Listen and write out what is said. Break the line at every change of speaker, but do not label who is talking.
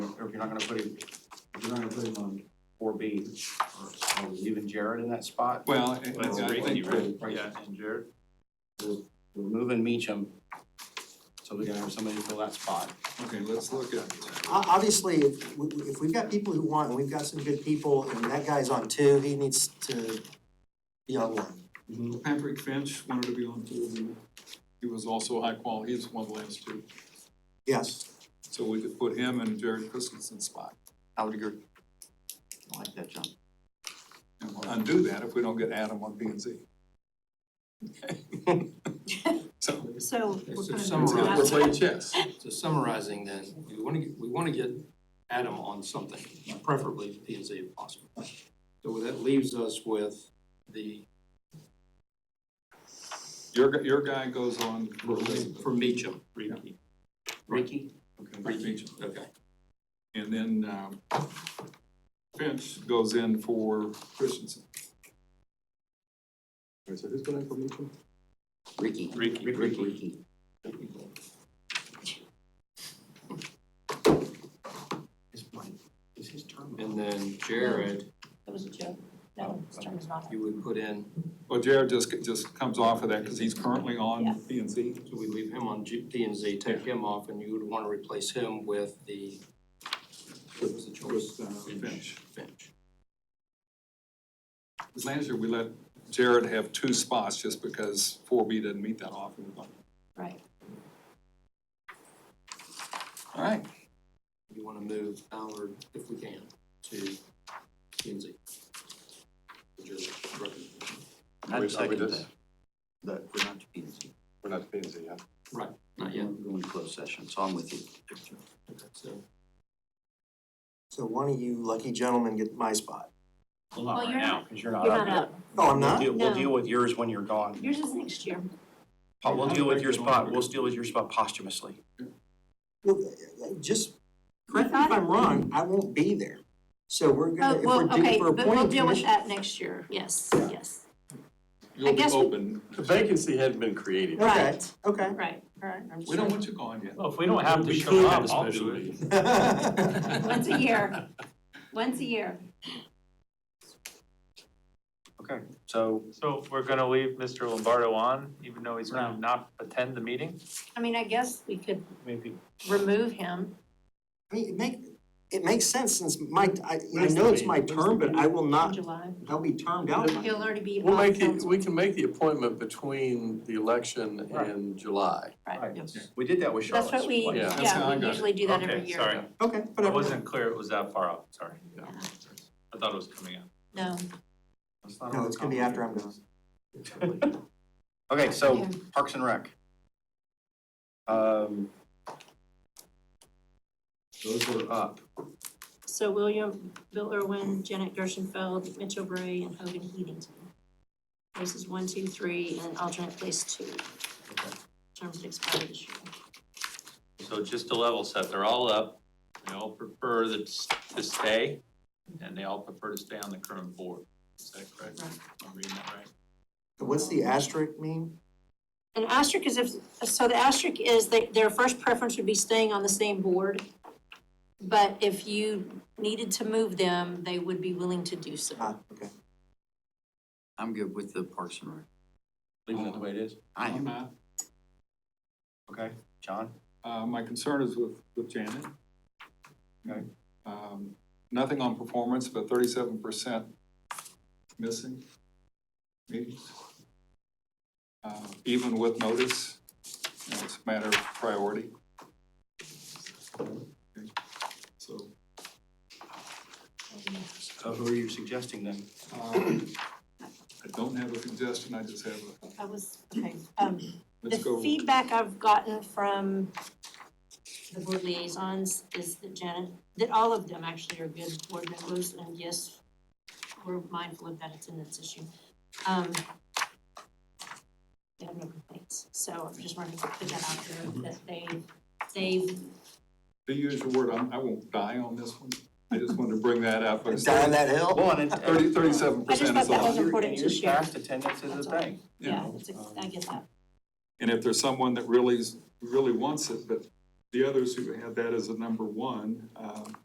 not gonna put him, you're not gonna put him on four B, or or leaving Jared in that spot?
Well, I-
That's
I- I
great,
think-
right?
Right, and Jared, we're, we're moving Meacham, so we can have somebody fill that spot.
okay, let's look at,
O- Obviously, if, we- we- if we've got people who want, and we've got some good people, and that guy's on two, he needs to be on one.
Patrick Finch wanted to be on two, and he was also high quality, he's one of the last two.
Yes,
So we could put him in Jared Christensen's spot.
I would agree. I like that, John.
And we'll undo that if we don't get Adam on P and Z. So,
So we're
So
gonna.
summarize.
we'll play chess.
So summarizing then, we want to, we want to get Adam on something, preferably P and Z if possible. So that leaves us with the,
Your, gu- your guy goes on for Elizabeth.
for Meacham.
Ricky.
Ricky?
for Meacham.
Okay.
And then, um, Finch goes in for Christensen. so who's going for Meacham?
Ricky.
Ricky.
Ricky.
Is his term?
And then Jared,
That was a joke. No, his term is not. up.
you would put in,
Well, Jared just, just comes off of that because he's currently
Yeah.
on P and Z.
so we leave him on G- P and Z, take him off, and you would want to replace him with the, what was the choice?
With, uh, Finch.
Finch.
Because Last year, we let Jared have two spots just because four B didn't meet that often. All
Right.
right,
You want to move Ballard, if we can, to P and Z. Would you recommend?
Are we- are we
I'd second
just-
that. But we're not debating,
We're not P and Z yet.
Not
we're
yet,
going to close session, so I'm with you.
so.
So one of you lucky gentlemen get my spot.
Well,
Well,
not right
you're
now, because you're not
You're
up
not
yet.
up.
Oh, I'm
We'll
not?
deal, we'll
No.
deal with yours when you're gone.
Yours is next year.
Po- We'll deal with your spot, we'll deal with your spot posthumously.
Well, Just, correct me if I'm wrong, I won't be there. So we're
Oh,
gonna, if we're
well,
due
okay,
for
but we'll
appointing
deal with
commission.
that next year. Yes, yes.
you'll be
guess we-
open.
The vacancy hadn't been created.
Right,
Okay.
right, right.
We don't want you gone yet.
Well, if we don't have
We could have a special meeting.
Once a year. Once a year.
Okay, so
So we're going to leave Mr. Lombardo on, even though he's
gonna
not attend the meeting?
I mean, I guess we could
maybe
remove him.
I mean, it make, it makes sense since my, I, I
Where's the
know it's
meeting?
my
Where's the
term, but I will
in
not,
July.
I'll be termed out. by-
He'll already be
We'll
on
make it,
council.
we can make the appointment between the election and July.
Right.
Right. we did that with Charlotte's.
That's what we,
place.
Yeah.
That's how I
yeah,
got
we
it.
usually do that every year.
Sorry,
Okay,
I
whatever.
wasn't clear it was that far out, sorry.
Yeah.
I thought it was coming up.
No.
Let's not
No, it's gonna be after I'm gone.
Okay, so
Okay.
Parks and Rec. Um. Those were up.
So William, Bill Irwin, Janet Gershenfeld, Mitchell Bray, and Hogan Heatington. Places one, two, three, and alternate place two. Terms that expire this year.
So just to level set, they're all up, they all prefer that s- to stay, and they all prefer to stay on the current board. Is that correct?
Right.
Am I reading that right?
What's the asterisk mean?
An asterisk is if, so the asterisk is they, their first preference would be staying on the same board. But if you needed to move them, they would be willing to do so.
Ah, okay.
I'm good with the Parks and Rec.
Leaving it the way it is.
I
I'm not.
Okay, John?
Uh, my concern is with, with Janet.
Okay.
Um, nothing on performance, but thirty-seven percent missing. Maybe. Uh, even with notice, you know, it's a matter of priority. Okay, So,
So who are you suggesting then?
um, I don't have a suggestion, I just have a,
I was, okay, um, The
let's go.
feedback I've gotten from the board liaisons is that Janet, that all of them actually are good board members, and yes, we're mindful of that attendance issue. Um, They have no complaints, so I'm just wanting to put that out there, that they,
Mm-hmm. To
they,
use your word, I'm, I won't die on this one. I just wanted to bring that up.
Die on that hill?
Well, and it-
Thirty, thirty-seven
I just
percent
thought
is
that
all,
was important
in
to
years
share.
past, Attendance is
That's
a
all.
thing.
you know.
yeah, it's a- I get that.
And if there's someone that really, really wants it, but the others who have that as a number one, um,